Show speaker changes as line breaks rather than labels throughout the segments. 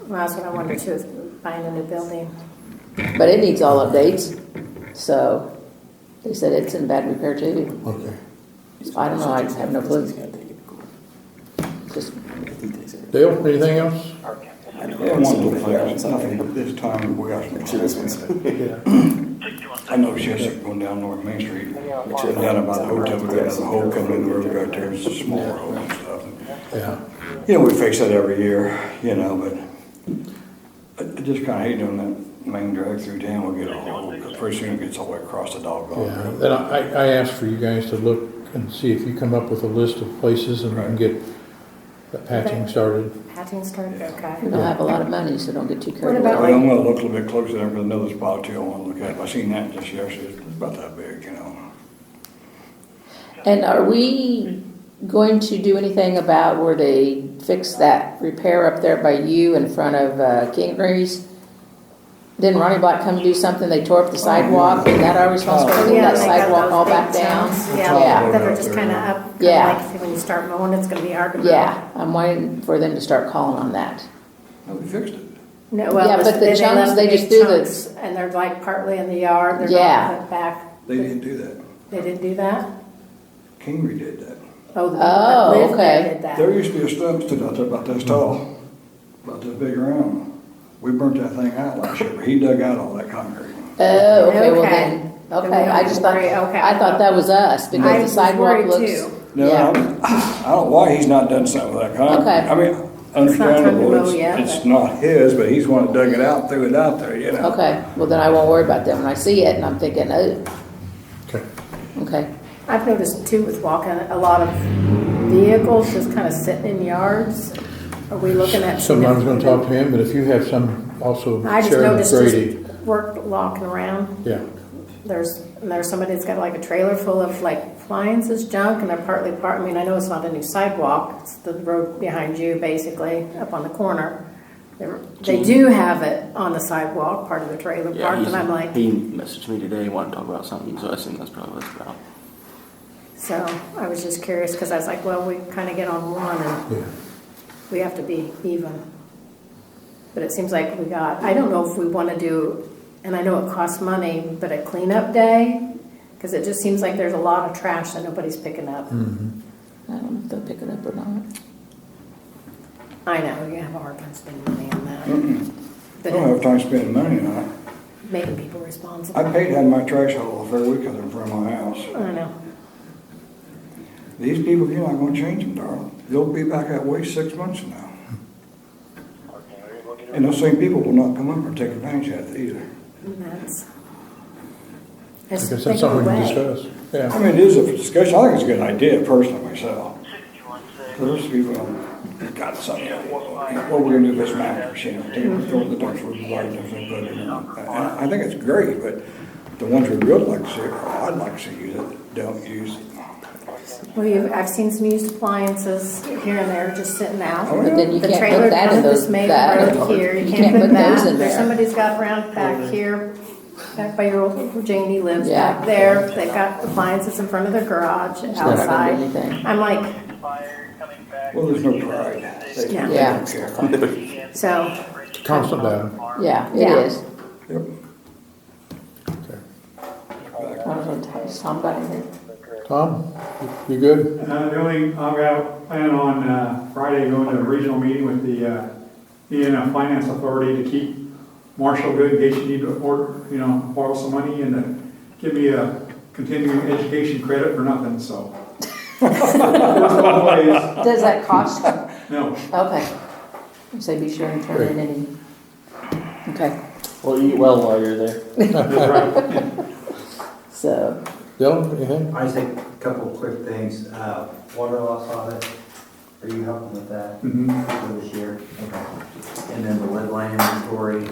Well, that's what I wanted to, is buying a new building.
But it needs all updates, so they said it's in bad repair too.
Okay.
I don't know, I have no clue. Just,
Dale, anything else?
This time, we got some. I know it's just going down North Main Street, and down about the hotel, we got another hole coming in the road right there, it's a smaller hole and stuff.
Yeah.
You know, we fix that every year, you know, but I I just kinda hate doing that main drag through town, we get a hole, but pretty soon it gets all the way across the dog
Yeah,
park.
then I, I asked for you guys to look and see if you come up with a list of places and we can get the patching started.
Hatching started,
we
okay.
don't have a lot of money, so don't get too carried
What
But
away.
about-
I'm gonna look a little bit closer there for another spot too, I wanna look at, I seen that just yesterday, it's about that big, you know.
And are we going to do anything about where they fix that repair up there by you in front of uh, King Grease? Didn't Ronnie Black come do something? They tore up the sidewalk, is that our responsibility, to
Oh. Yeah,
get that
they got
sidewalk
those
all
big
back down?
towns,
Yeah.
Yeah, that are just kinda up, kinda
Yeah.
like when you start mowing, it's gonna be hard to mow.
Yeah, I'm waiting for them to start calling on that.
No, we fixed it.
No, well,
Yeah,
it was-
but the
they
chunks,
left
they
big
just do the-
chunks, And they're like partly in the yard, they're
Yeah.
not put back.
They didn't do that,
They didn't do that?
Kingery did that.
Oh, the people
Oh,
that lived there
okay.
did that.
There used to be a stump stood out there about this tall, about this big round. We burnt that thing out last year, but he dug out all that concrete.
Oh, okay, well
Okay.
then,
Then we
okay, I
don't
just thought,
worry, okay.
I thought that was us,
I
because the
was
sidewalk
worried
looks.
too.
No,
Yeah.
I'm- I don't know why he's not done something with that concrete.
Okay.
I
not
mean,
time to mow
understandable, it's,
yet,
it's
but-
not his, but he's the one that dug it out, threw it out there, you know?
Okay, well then I won't worry about that when I see it, and I'm thinking, oh,
Okay.
okay,
I've noticed too with walking, a lot of vehicles just kind of sitting in yards. Are we looking at?
So I was gonna talk to him, but if you have some also
I just
Sharon
noticed
Grady.
just work walking around.
Yeah,
There's, and there's somebody that's got like a trailer full of like appliances junk and they're partly part, I mean, I know it's not a new sidewalk. It's the road behind you basically, up on the corner. They're- They do have it on the sidewalk, part of the trailer
Yeah,
park,
he's,
and I'm like,
he messaged me today, wanted to talk about something, so I assume that's probably what it's about.
so I was just curious because I was like, well, we kind of get on one and
yeah.
we have to be even. But it seems like we got, I don't know if we want to do, and I know it costs money, but a cleanup day? Because it just seems like there's a lot of trash that nobody's picking up.
Hmm.
I don't know if they'll pick it up or not.
I know, you have a hard time spending money on
Hmm.
that.
Mm-mm. I don't
But
have time spending money on it.
making people responsible.
I paid to have my trash hauled off every week 'cause they're in front of my house.
I know.
These people, you're not gonna change them, darling. They'll be back that way six months from now. And those same people will not come up and take advantage of it either.
And that's.
I guess
It's
that's
taken
something we can
away.
discuss.
I
Yeah,
mean, it is a discussion, I think it's a good idea personally myself. Those people, got something, what we're gonna do with this mattress, you know, take it, throw it in the dumpster, we'll buy it, and put it in. And I I think it's great, but the ones we would like to see, or I'd like to see use it, don't use it.
Well, you- I've seen some used appliances here and there just sitting out.
Oh, yeah.
But then you
The
can't
trailer
put that in
down
those,
this main
that,
road here, you can't put
those
that, there's
in there.
somebody's got around back here, back by your old, where Janie lives
Yeah.
back there, they've got appliances in front of their garage
not gonna do
outside.
anything.
I'm like,
Well, there's no pride. They- they don't
Yeah.
care.
so,
constant battle.
Yeah,
Yeah.
it is.
Yep.
Okay.
I don't know, has Tom got anything?
Tom, you good?
Uh, The only, I've got a plan on uh, Friday going to a regional meeting with the uh, Indiana Finance Authority to keep Marshall good in case you need to afford, you know, borrow some money and to give me a continuing education credit for nothing, so. Works both ways.
Does that cost?
No,
Okay. So be sure and turn in any. Okay,
Well, eat well while you're there.
that's right.
so,
Dylan, anything?
I just think a couple of quick things. Uh, Water loss audit, are you helping with that
Mhm.
for this year? Okay. And then the lead line inventory,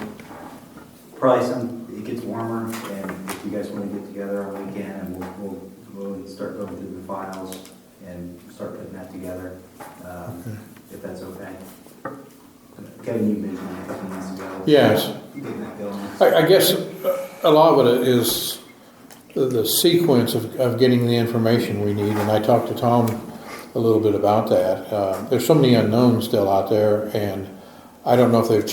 probably some, it gets warmer, and if you guys want to get together on the weekend, and we'll, we'll, we'll start going through the files and start putting that together, um, if that's okay. Kevin, you mentioned a couple months ago.
Yes.
Getting that going.
I, I guess uh, a lot of it is the, the sequence of, of getting the information we need, and I talked to Tom a little bit about that. Uh, there's so many unknowns still out there, and I don't know if they've